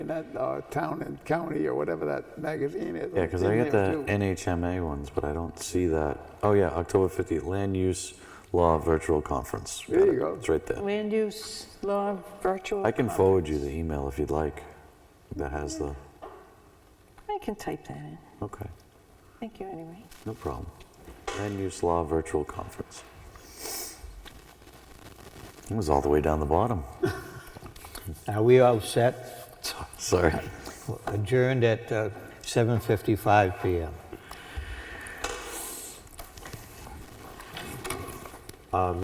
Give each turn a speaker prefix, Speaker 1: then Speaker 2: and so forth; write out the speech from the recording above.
Speaker 1: in that uh, town and county or whatever that magazine is.
Speaker 2: Yeah, because
Speaker 1: It's
Speaker 2: I
Speaker 1: in
Speaker 2: get
Speaker 1: there,
Speaker 2: the
Speaker 1: too.
Speaker 2: NHMA ones, but I don't see that. Oh, yeah, October 15th, Land Use Law Virtual Conference. Got
Speaker 1: There you
Speaker 2: it.
Speaker 1: go.
Speaker 2: It's right there.
Speaker 3: Land use law virtual.
Speaker 2: I can forward you the email if you'd like that has the,
Speaker 3: I can type that in.
Speaker 2: okay,
Speaker 3: Thank you anyway.
Speaker 2: no problem. Land Use Law Virtual Conference. It was all the way down the bottom.
Speaker 4: Are we all set?
Speaker 2: Sorry.
Speaker 4: Adjourned at uh, 7:55 PM.